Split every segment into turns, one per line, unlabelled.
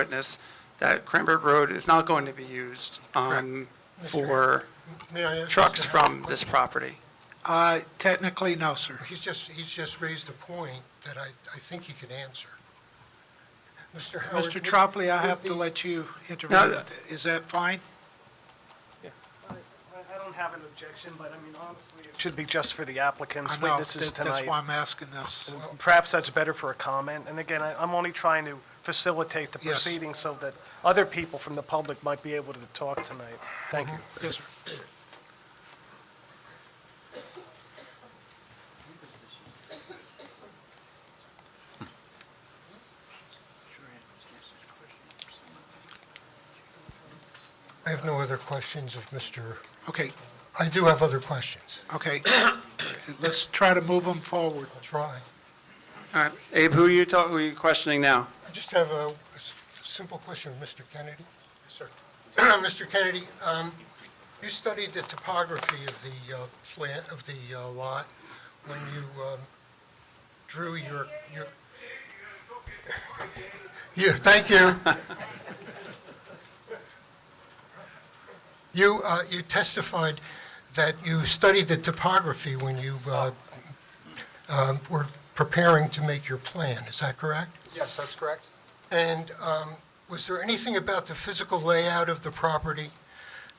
witness that Cranbrook Road is not going to be used um, for
May I ask
trucks
Mr. Howard a
from this
question?
property.
Uh, Technically, no, sir.
He's just, he's just raised a point that I, I think he can answer. Mr. Howard.
Mr.
would-
Tropoli, I
would
have to
the-
let you intervene. Is that fine?
I I don't have an objection, but I mean, honestly, it should be just for the
I
applicant's
know,
witnesses
that- That's why
tonight.
I'm asking this.
And Perhaps that's better for a comment, and again, I- I'm only trying to facilitate the
Yes.
proceedings so that other people from the public might be able to talk tonight. Thank you.
Yes, sir.
I have no other questions of Mr.,
Okay,
I do have other questions.
okay. Let's try to move them forward.
I'll try.
All right, Abe, who are you talking, who are you questioning now?
I just have a s- simple question of Mr. Kennedy. Yes, sir. Mr. Kennedy, um, you studied the topography of the uh, plan, of the uh, lot when you um, drew your, your... Yeah, thank you. You, uh, you testified that you studied the topography when you uh, um, were preparing to make your plan, is that correct?
Yes, that's correct.
And um, was there anything about the physical layout of the property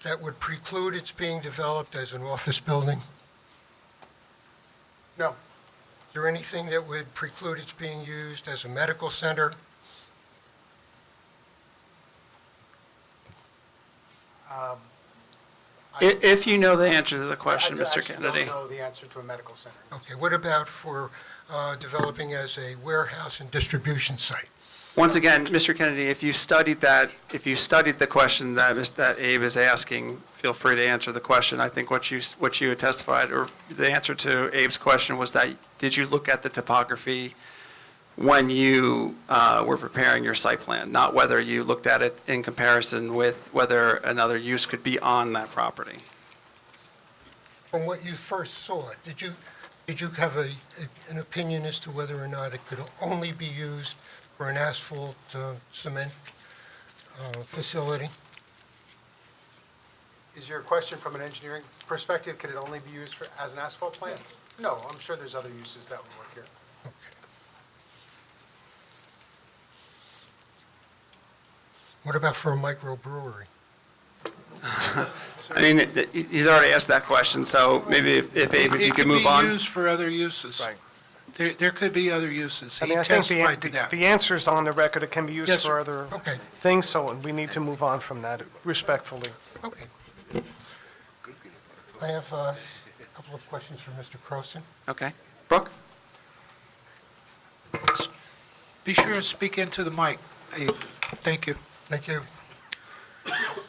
that would preclude its being developed as an office building?
No,
Is there anything that would preclude its being used as a medical center?
I- If you know the answer to the
I
question, Mr.
actually don't
Kennedy.
know the answer to a medical center.
Okay, what about for uh, developing as a warehouse and distribution site?
Once again, Mr. Kennedy, if you studied that, if you studied the question that Mis- that Abe is asking, feel free to answer the question. I think what you, s- what you had testified, or the answer to Abe's question was that, did you look at the topography when you uh, were preparing your site plan? Not whether you looked at it in comparison with whether another use could be on that property.
From what you first saw, it, did you, did you have a, an opinion as to whether or not it could only be used for an asphalt uh, cement uh, facility?
Is your question from an engineering perspective, could it only be used for, as an asphalt plant? No, I'm sure there's other uses that would work here.
What about for a microbrewery?
I mean, it- it- he's already asked that question, so maybe if if Abe, if you could move
It could
on.
be used for other uses.
Right.
There, there could be other uses.
I
He
mean, I think the
testified to
an-
that.
The answer's on the record, it can be
Yes,
used
sir.
for other
Okay.
things, so we need to move on from that respectfully.
Okay. I have uh, a couple of questions for Mr. Croson.
Okay. Brooke?
Be sure to speak into the mic. Abe. Thank you.
Thank you.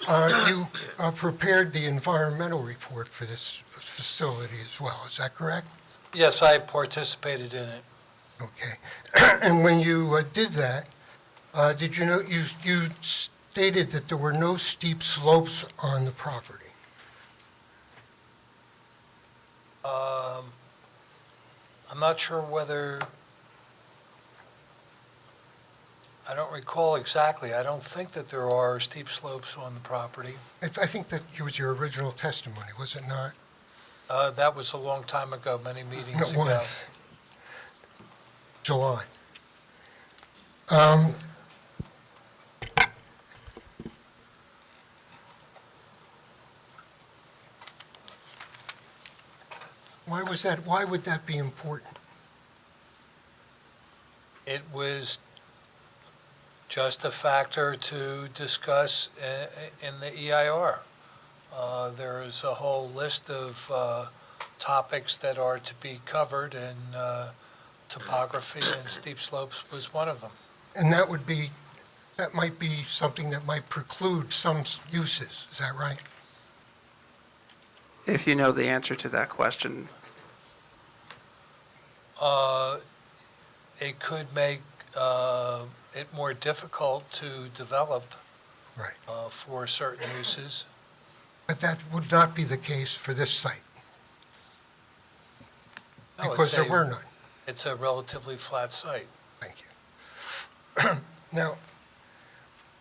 Uh, You uh, prepared the environmental report for this facility as well, is that correct?
Yes, I participated in it.
Okay. And when you uh, did that, uh, did you know, you you stated that there were no steep slopes on the property?
Um, I'm not sure whether, I don't recall exactly. I don't think that there are steep slopes on the property.
It's- I think that was your original testimony, was it not?
Uh, That was a long time ago, many meetings
It
ago.
was. July. Um, Um, Why was that, why would that be important?
It was just a factor to discuss uh, in the EIR. Uh, There is a whole list of uh, topics that are to be covered, and uh, topography and steep slopes was one of them.
And that would be, that might be something that might preclude some s- uses, is that right?
If you know the answer to that question,
Uh, It could make uh, it more difficult to develop
Right.
uh, for certain uses.
But that would not be the case for this site,
No, it's
because there
a-
were none.
It's a relatively flat site.
Thank you. Now,